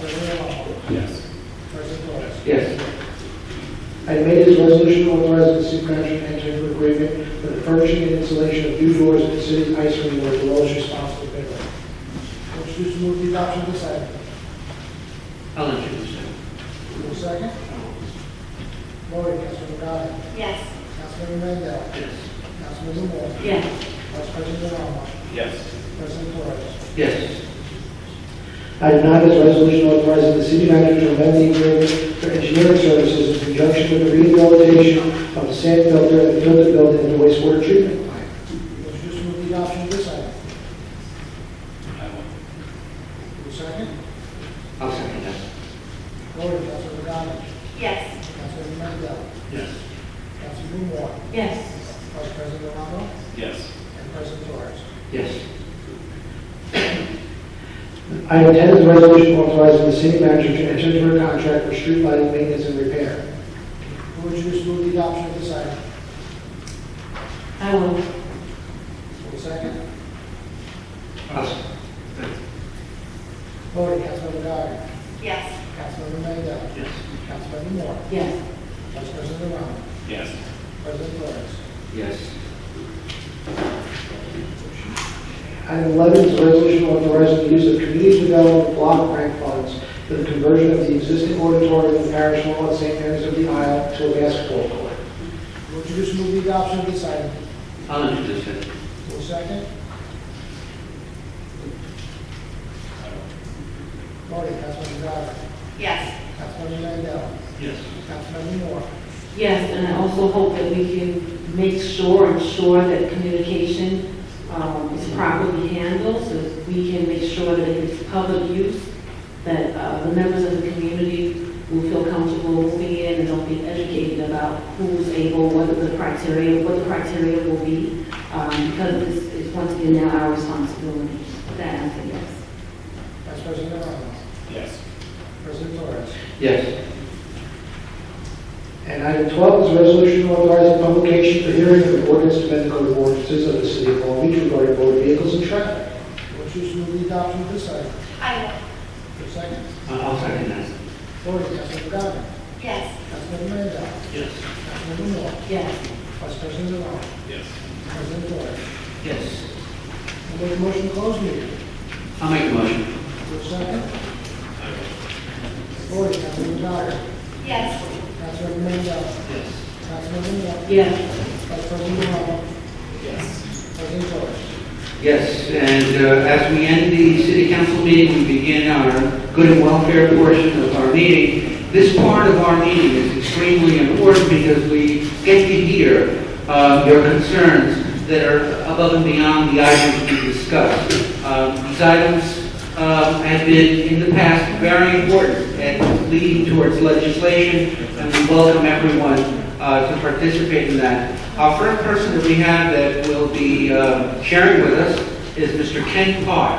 President Hall. Yes. President Torres. Yes. Item eight is a resolution authorizing the city manager to enter into an agreement for the furnishing and installation of new doors at the city's ice cream where the lowest responsible bidder. Would you please move the adoption of this item? I'll introduce it. Move a second. Voting, Councilman Gotti. yes, Councilman Mandel. Yes. Councilman Moore. yes, Vice President Obama. Yes. President Torres. Yes. Item nine is a resolution authorizing the city manager to amend the agreement for engineering services in conjunction with the rehabilitation of the sand filter and filter building and the wastewater treatment. plant. Would you please move the adoption of this item? I will. Move a second. I'll second that. Voting, Councilman Gotti. yes, Councilman Mandel. Yes. Councilman Moore. yes, Vice President Obama. Yes. And President Torres. Yes. Item ten is a resolution authorizing the city manager to enter into a contract for street lighting maintenance and repair. Would you please move the adoption of this item? I will, Move a second. I'll s- Voting, Councilman Gotti. yes, Councilman Mandel. Yes. Councilman Moore. yes, Vice President Obama. Yes. President Torres. Yes. Item 11 is a resolution authorizing the use of community development block grant funds for the conversion of the existing auditorium in Parish Hall at St. Mary's of the Isle to a basketball court. Would you just move the adoption of this item? I'll introduce it. Will second? Voting, Councilman Goddard. yes. Councilman Mandel. Yes. Councilman Moore. Yes, and I also hope that we can make sure, ensure that communication um, is properly handled, so that we can make sure that if it's public use, that uh, the members of the community will feel comfortable moving in and they'll be educated about who's able, what are the criteria, what the criteria will be, um, because it's, it's once again now our responsibility. With That I say yes. Vice President Ramos. Yes. President Torres. Yes. And item 12 is a resolution authorizing publication for hearing of an ordinance to amend the code of ordinances of the city of Long Beach regarding motor vehicles and traffic. Would you just move the adoption of this item? I will, Will second? Uh, oh, I- I'll second that. Voting, Councilman Goddard. yes, Councilman Mandel. Yes. Councilman Moore. Yes, Vice President Ramos. Yes. President Torres. Yes. I make a motion to close meeting. I'll make a motion. Will second? Voting, Councilman Goddard. yes. Councilman Mandel. Yes. Councilman Moore. yes. Vice President Ramos. Yes. President Torres. Yes, and uh, as we end the city council meeting, we begin our good and welfare portion of our meeting. This part of our meeting is extremely important because we get to hear uh, your concerns that are above and beyond the items we discussed. Um, These items um, have been, in the past, very important and leading towards legislation, and we welcome everyone uh, to participate in that. Our first person that we have that will be uh, sharing with us is Mr. Ken Parr.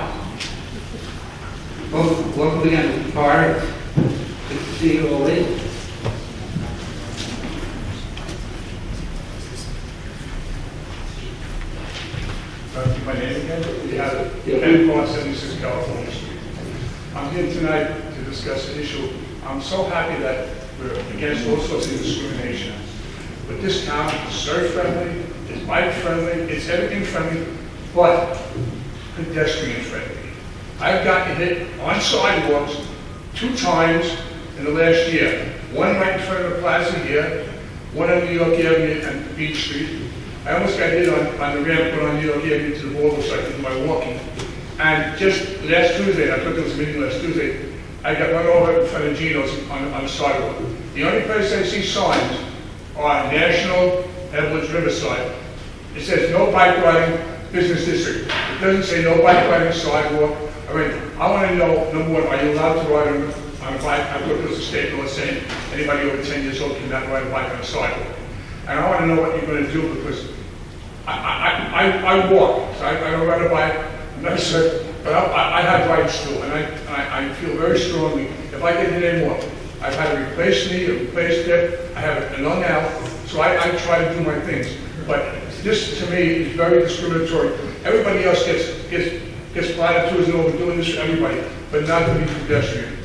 Wel- Welcome again, Mr. Parr. Good to see you all. in. Uh, My name again? Yeah. Yeah. Ben Vaughn, 76 California Street. I'm here tonight to discuss an issue. I'm so happy that we're against all sorts of discrimination. But this town is surf-friendly, it's bike-friendly, it's everything-friendly, but pedestrian-friendly. I've gotten hit on sidewalks two times in the last year. One right in front of the plaza here, one on New York Avenue and Beach Street. I almost got hit on, on the ramp going on New York Avenue to the border section by walking. And just last Tuesday, I took this meeting last Tuesday, I got run over in front of Geno's on, on the sidewalk. The only place I see signs are National Edwards Riverside, it says no bike riding business district. It doesn't say no bike riding sidewalk. I mean, I want to know, number one, are you allowed to ride on on a bike? I thought there was a state law saying anybody over 10 years old cannot ride a bike on a sidewalk. And I want to know what you're going to do because I, I, I, I walk, so I, I don't ride a bike, I'm not sure, but I- I, I have rights too, and I, I, I feel very strongly, if I get hit anymore, I've had a replaced knee, a replaced hip, I have a lung out, so I, I try to do my things. But this, to me, is very discriminatory. Everybody else gets, gets, gets platitudes and overdoing this, to everybody, but not to be pedestrian.